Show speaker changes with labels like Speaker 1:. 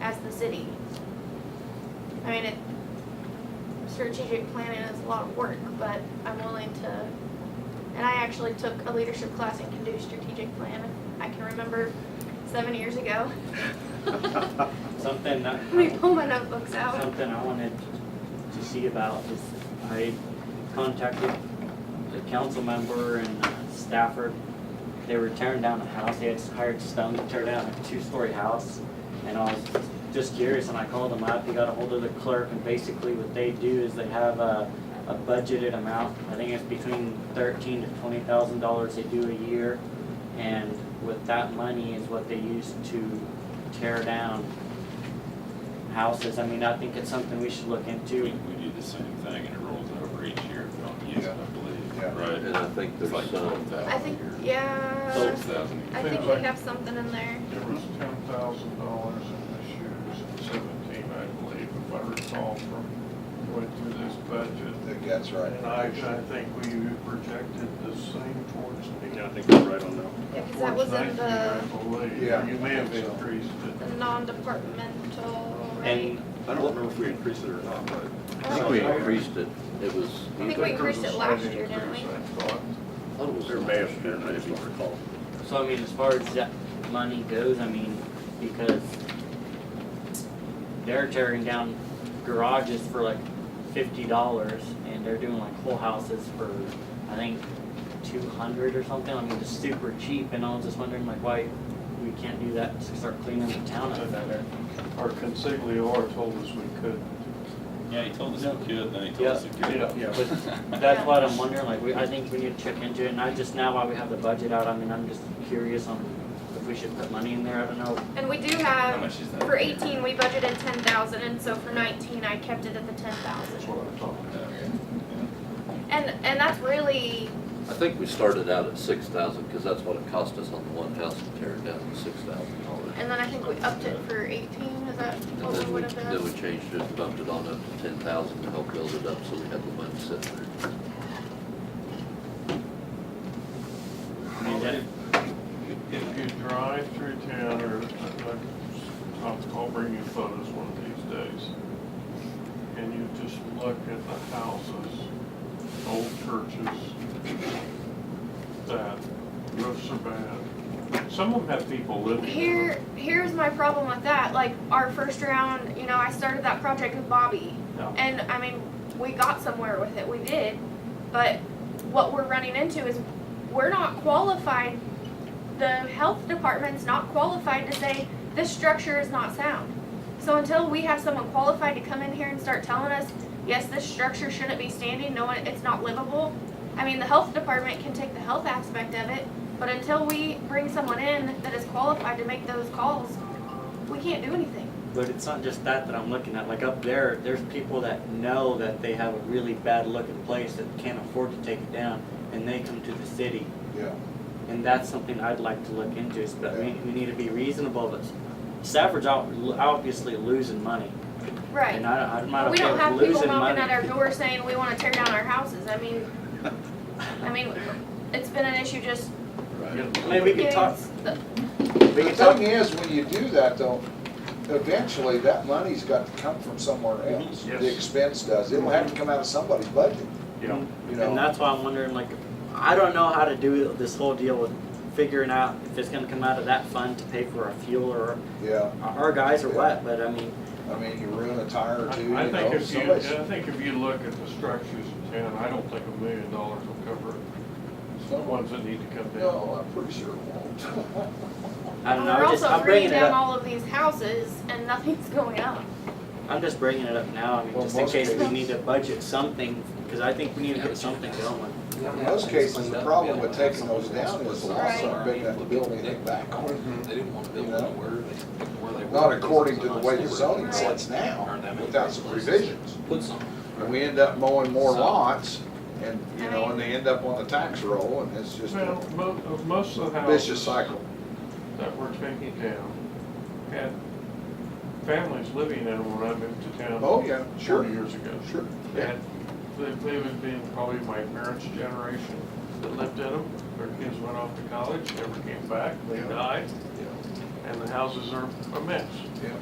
Speaker 1: as the city. I mean, it, strategic planning is a lot of work, but I'm willing to, and I actually took a leadership class and can do strategic plan. I can remember seven years ago,
Speaker 2: Something that,
Speaker 1: let me pull my notebooks out.
Speaker 2: something I wanted to see about is I contacted the council member in Stafford. They were tearing down a house, they had hired stone to tear down a two-story house. And I was just curious and I called them up, he got a hold of the clerk and basically what they do is they have a, a budgeted amount. I think it's between thirteen to twenty thousand dollars they do a year. And with that money is what they use to tear down houses. I mean, I think it's something we should look
Speaker 3: We,
Speaker 2: into.
Speaker 3: we do the same thing and it rolls over each year if we don't use it, I
Speaker 4: Yeah.
Speaker 3: believe,
Speaker 5: And
Speaker 3: right?
Speaker 5: I think
Speaker 3: It's like
Speaker 5: there's
Speaker 3: twelve
Speaker 5: some,
Speaker 3: thousand.
Speaker 1: I think, yeah,
Speaker 3: Twelve thousand.
Speaker 1: I think we have something in there.
Speaker 4: There was ten thousand dollars in this year's and seventeen, I believe, if I recall from going through this budget.
Speaker 6: I think that's right.
Speaker 4: And I, I think we projected the same towards the.
Speaker 7: Yeah, I think we're right on that.
Speaker 1: Yeah, 'cause that was in
Speaker 4: Towards 19, I
Speaker 1: the,
Speaker 4: believe.
Speaker 6: Yeah.
Speaker 4: You may have increased it.
Speaker 1: the non-departmental, right? Oh,
Speaker 2: And
Speaker 7: I don't remember if we increased it or not, but
Speaker 5: I think we increased it, it was.
Speaker 1: I think we increased it last year, didn't we?
Speaker 4: I thought.
Speaker 5: I thought it was-
Speaker 7: they were mayor, and I just don't recall.
Speaker 2: So I mean, as far as that money goes, I mean, because they're tearing down garages for like fifty dollars and they're doing like whole houses for, I think, two hundred or something. I mean, just super cheap and I was just wondering like why we can't do that to start cleaning the town up better.
Speaker 4: Our consigliere told us we could.
Speaker 3: Yeah, he told us he could, then he told
Speaker 2: Yeah.
Speaker 3: us he couldn't.
Speaker 4: Yeah.
Speaker 2: But that's what I'm wondering, like, we, I think we need to check into it and I just now while we have the budget out, I mean, I'm just curious on if we should put money in there. I don't know
Speaker 1: And we do
Speaker 3: How
Speaker 1: have,
Speaker 3: much is that?
Speaker 1: for eighteen, we budgeted ten thousand, and so for nineteen, I kept it at the ten
Speaker 4: That's
Speaker 1: thousand.
Speaker 4: what I'm talking about.
Speaker 1: And, and that's really,
Speaker 5: I think we started out at six thousand, because that's what it cost us on the one house to tear it down, six thousand dollars.
Speaker 1: and then I think we upped it for eighteen, is that
Speaker 5: And
Speaker 1: what we
Speaker 5: then we,
Speaker 1: would have
Speaker 5: then we
Speaker 1: been?
Speaker 5: changed it, bumped it on up to ten thousand to help build it up, so we had the money set there.
Speaker 2: I mean, that-
Speaker 4: If you drive through town, or, uh, I'll, I'll bring you photos one of these days, and you just look at the houses, old churches, that roofs are bad. Some of them have people living in them.
Speaker 1: Here, here's my problem with that, like, our first round, you know, I started that project with Bobby,
Speaker 4: Yeah.
Speaker 1: and, I mean, we got somewhere with it, we did, but what we're running into is, we're not qualified, the health department's not qualified to say, this structure is not sound. So until we have someone qualified to come in here and start telling us, yes, this structure shouldn't be standing, no, it- it's not livable. I mean, the health department can take the health aspect of it, but until we bring someone in that is qualified to make those calls, we can't do anything.
Speaker 2: But it's not just that that I'm looking at. Like up there, there's people that know that they have a really bad looking place that can't afford to take it down, and they come to the city.
Speaker 6: Yeah.
Speaker 2: And that's something I'd like to look into. is- But we, we need to be reasonable. But Stafford's out, obviously losing money,
Speaker 1: Right.
Speaker 2: and I, I'm not
Speaker 1: We
Speaker 2: okay
Speaker 1: don't have
Speaker 2: with
Speaker 1: people
Speaker 2: losing
Speaker 1: knocking at
Speaker 2: money.
Speaker 1: our door saying we wanna tear down our houses, I mean, I mean, it's been an issue just
Speaker 2: Maybe we can
Speaker 1: getting
Speaker 2: talk.
Speaker 1: the-
Speaker 6: The thing is, when you do that though, eventually that money's got to come from somewhere else.
Speaker 4: Mm-hmm. Yes.
Speaker 6: The expense does. It'll have to come out of somebody's budget,
Speaker 4: Yeah.
Speaker 6: you
Speaker 2: And
Speaker 6: know?
Speaker 2: that's why I'm wondering, like, I don't know how to do this whole deal with figuring out if it's gonna come out of that fund to pay for our fuel or
Speaker 6: Yeah,
Speaker 2: our guys or what. But I mean,
Speaker 6: I mean, you ruin a tire or two, you
Speaker 4: I I think
Speaker 6: know,
Speaker 4: if you,
Speaker 6: somebody's,
Speaker 4: I think if you look at the structures in town, I don't think a million dollars will cover it. The ones that need to come down.
Speaker 6: no, I'm pretty sure it won't.
Speaker 2: I don't know.
Speaker 1: We're
Speaker 2: I'm just,
Speaker 1: also
Speaker 2: I'm bringing
Speaker 1: bringing
Speaker 2: it
Speaker 1: down
Speaker 2: up.
Speaker 1: all of these houses and nothing's going up.
Speaker 2: I'm just bringing it up now, I mean,
Speaker 6: Well,
Speaker 2: just in
Speaker 6: most
Speaker 2: case we
Speaker 6: cases-
Speaker 2: need to budget something, because I think we need to get something going.
Speaker 6: In most cases, the problem with taking those down is the loss of big enough to build anything back on.
Speaker 8: They didn't want to build anywhere, they, where they were.
Speaker 6: Not according to the way the
Speaker 8: Because
Speaker 6: zoning
Speaker 8: it's a nice
Speaker 6: sits now,
Speaker 8: Aren't that many
Speaker 6: without some
Speaker 8: places?
Speaker 6: revisions.
Speaker 8: neighborhood. Put some.
Speaker 6: And we end up mowing more
Speaker 8: So-
Speaker 6: lots and, you
Speaker 1: I
Speaker 6: know, and
Speaker 1: mean-
Speaker 6: they end up on the tax roll and it's just
Speaker 4: Well,
Speaker 6: a
Speaker 4: mo- of most of the houses.
Speaker 6: vicious cycle.
Speaker 4: that we're taking down had families living in them when I moved to town.
Speaker 6: Oh, yeah, sure.
Speaker 4: 40 years ago.
Speaker 6: Sure.
Speaker 4: And they, they would have been probably my parents' generation that lived in them. Their kids went off to college, never came back, they
Speaker 6: Yeah.
Speaker 4: died,
Speaker 6: Yeah.
Speaker 4: and the houses are a mess.
Speaker 6: Yeah.